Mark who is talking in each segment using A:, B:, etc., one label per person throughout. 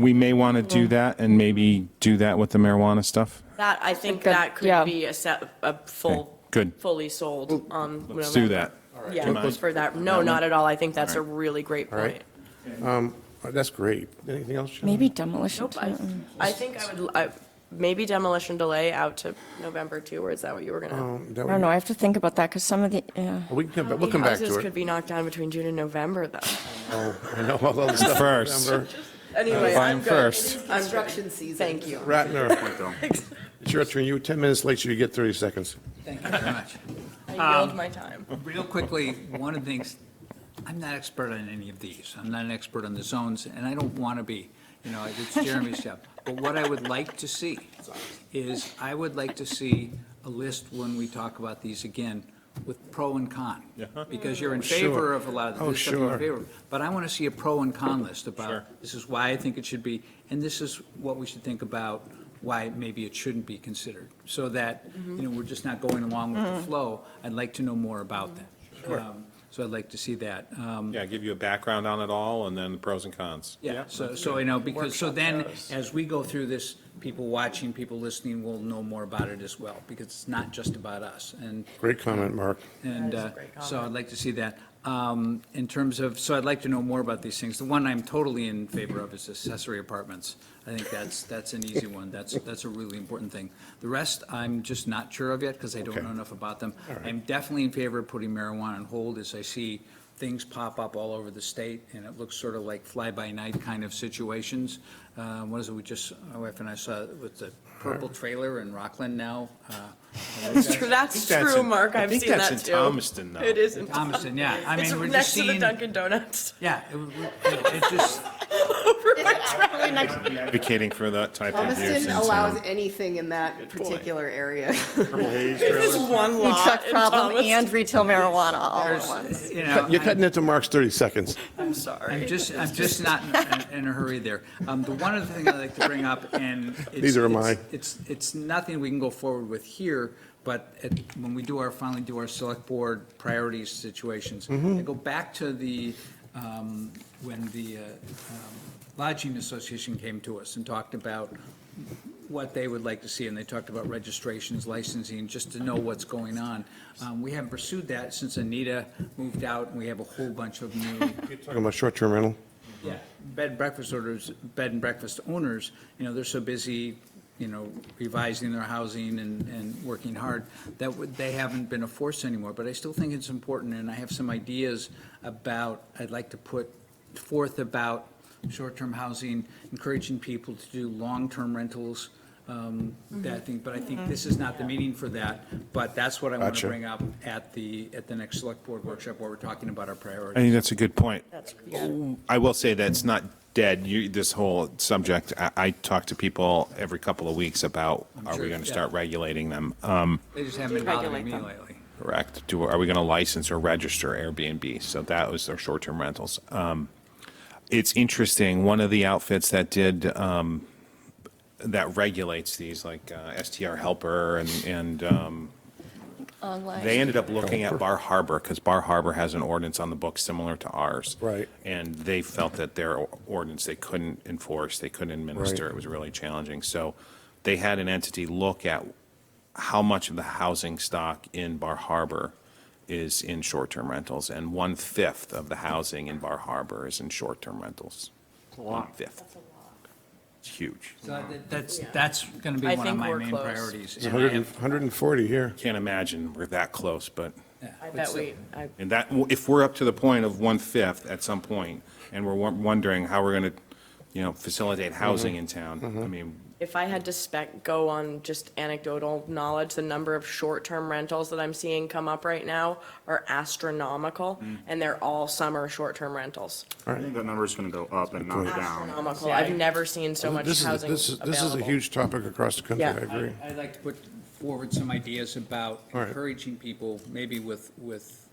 A: We may want to do that and maybe do that with the marijuana stuff.
B: That, I think
C: that-
B: that
C: yeah.
B: could be a set, a
A: Okay,
B: full.
A: good.
B: Fully sold. um,
A: Let's do
B: November.
A: that. Do you
B: Yeah,
A: mind?
B: for that, no, not at all. I think that's a
A: Alright.
B: really great
D: Alright.
B: point.
D: Oh, That's great. Anything else? Shannon?
C: Maybe demolition
B: Nope, I,
C: too.
B: I think I would, I, maybe demolition delay out to November two, or is that what you were
A: Oh.
B: gonna?
D: Um, that
C: I don't
D: would-
C: know, I have to think about that, because some of the, yeah.
D: We can come, back- we'll come back
B: Houses
D: to
B: could
D: it.
B: be knocked down between June and November, though.
D: Oh, I know all the stuff.
A: First.
D: Remember?
B: Anyway,
A: Fine
B: I'm good.
A: first.
B: Construction season. Thank you.
D: Ratner. It's your turn. You were 10 minutes late, so you get 30 seconds.
E: Thank you very much.
B: I yield my time.
E: Real quickly, one of the things, I'm not expert on any of these. I'm not an expert on the zones, and I don't want to be, you know, it's Jeremy's job. But what I would like to see is, I would like to see a list when we talk about these again with pro and con. Because you're in favor of a lot of
D: Oh,
E: the stuff you're
D: sure.
E: in favor of. But I want to see a pro and con list
A: Sure.
E: about, this is why I think it should be, and this is what we should think about, why maybe it shouldn't be considered. So that, you know, we're just not going along with the flow. I'd like to know more about that. Um, So I'd like to see that. Um,
A: Yeah, give you a background on it all and then the pros and cons.
E: Yeah, so, so, you know, because, so then, as we go through this, people watching, people listening will know more about it as well, because it's not just about us. And
D: Great comment, Mark.
E: and
B: That is a
E: uh,
B: great
E: so I'd
B: comment.
E: like to see that. Um, In terms of, so I'd like to know more about these things. The one I'm totally in favor of is accessory apartments. I think that's, that's an easy one. That's, that's a really important thing. The rest, I'm just not sure of yet because I don't
D: Okay.
E: know enough about them. I'm definitely in favor of putting marijuana on hold as I see things pop up all over the state and it looks sort of like fly-by-night kind of situations. Uh, What is it, we just, my wife and I saw with the purple trailer in Rockland now. uh,
B: That's true, Mark. I've seen
A: I
B: that
A: think that's in
B: too.
A: Thomaston now.
B: It is in
E: Thomaston, yeah. I
B: It's
E: mean, we're just
B: next to the
E: seeing-
B: Dunkin' Donuts.
E: Yeah, it, w- w- it just,
A: Advocating for that type of use. in
F: Thomaston allows
A: town.
F: anything in that particular area.
B: It's one
C: Food truck
B: lot in
C: problem and
B: Thomaston.
C: retail marijuana all at
E: there's,
C: once.
E: you know,
D: You're
E: I'm-
D: cutting into Mark's 30 seconds.
B: I'm sorry.
E: I'm just, I'm just not in- in a hurry there. Um, The one other thing I'd like to bring up, and. it's-
D: Neither am
E: it's-
D: I.
E: It's, it's nothing we can go forward with here, but at- when we do our, finally do our select board priorities situations, I go back to the, um, when the uh, um, lodging association came to us and talked about what they would like to see, and they talked about registrations, licensing, just to know what's going on. Um, We haven't pursued that since Anita moved out, and we have a whole bunch of new
D: Talking about short-term rental.
E: yeah, bed and breakfast orders, bed and breakfast owners, you know, they're so busy, you know, revising their housing and, and working hard, that would, they haven't been a force anymore, but I still think it's important, and I have some ideas about, I'd like to put forth about short-term housing, encouraging people to do long-term rentals, um, that thing, but I think this is not the meeting for that, but that's what I want
D: Gotcha.
E: to bring up at the, at the next select board workshop, where we're talking about our
A: I
E: priorities.
A: think that's a good point.
B: That's-
A: I will say that it's not dead, you, this whole subject. I, I talk to people every couple of weeks about, are
E: sure,
A: we going to
E: yeah.
A: start regulating them? Um,
E: They just haven't been bothering me lately.
A: Correct. Do, are we going to license or register Airbnb? So that was their short-term rentals. Um, it's interesting, one of the outfits that did, um, that regulates these, like, uh, STR Helper and, and, um,
C: Online.
A: they ended up looking at Bar Harbor because Bar Harbor has an ordinance on the book similar to ours.
D: Right.
A: And they felt that their ordinance, they couldn't enforce, they couldn't administer.
D: Right.
A: It was really challenging. So they had an entity look at how much of the housing stock in Bar Harbor is in short-term rentals. And one-fifth of the housing in Bar Harbor is in short-term rentals. One-fifth. It's huge.
E: So that- That's, that's going to be
B: I
E: one of
B: think
E: my
B: we're
E: main
B: close.
E: priorities.
D: It's
E: and I
D: 100 and-
E: have-
D: 140 here.
A: Can't imagine we're that close, but.
E: yeah,
B: I
E: but
B: bet
E: still.
B: we, I,
A: And that, if we're up to the point of one-fifth at some point, and we're won- wondering how we're going to, you know, facilitate housing in town, I mean,
B: if I had to spec, go on just anecdotal knowledge, the number of short-term rentals that I'm seeing come up right now are astronomical,
D: Mm.
B: and they're all summer short-term rentals.
G: I think that number's gonna go up and not down.
B: Astronomical. I've never seen so much
D: This is-
B: housing
D: this is- This is a
B: available.
D: huge topic across the country, I
B: Yeah.
D: agree.
E: I- I'd like to put forward some ideas about
D: All right.
E: encouraging people, maybe with, with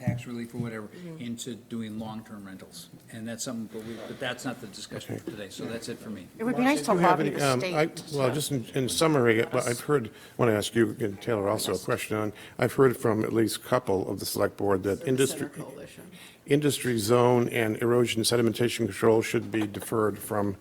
E: tax relief or whatever
B: Mm-hmm.
E: into doing long-term rentals. And that's something, but we, but that's not the discussion for today, so that's it for me.
H: It would be nice to
D: Do you have
H: lobby
D: any,
H: the
D: um, I-
H: state.
D: Well, just in- in summary, I- I've heard, I want to ask you and Taylor also a question on, I've heard from at least a couple of the select board that industry,
F: Coalition.
D: industry zone and erosion sedimentation control should be deferred from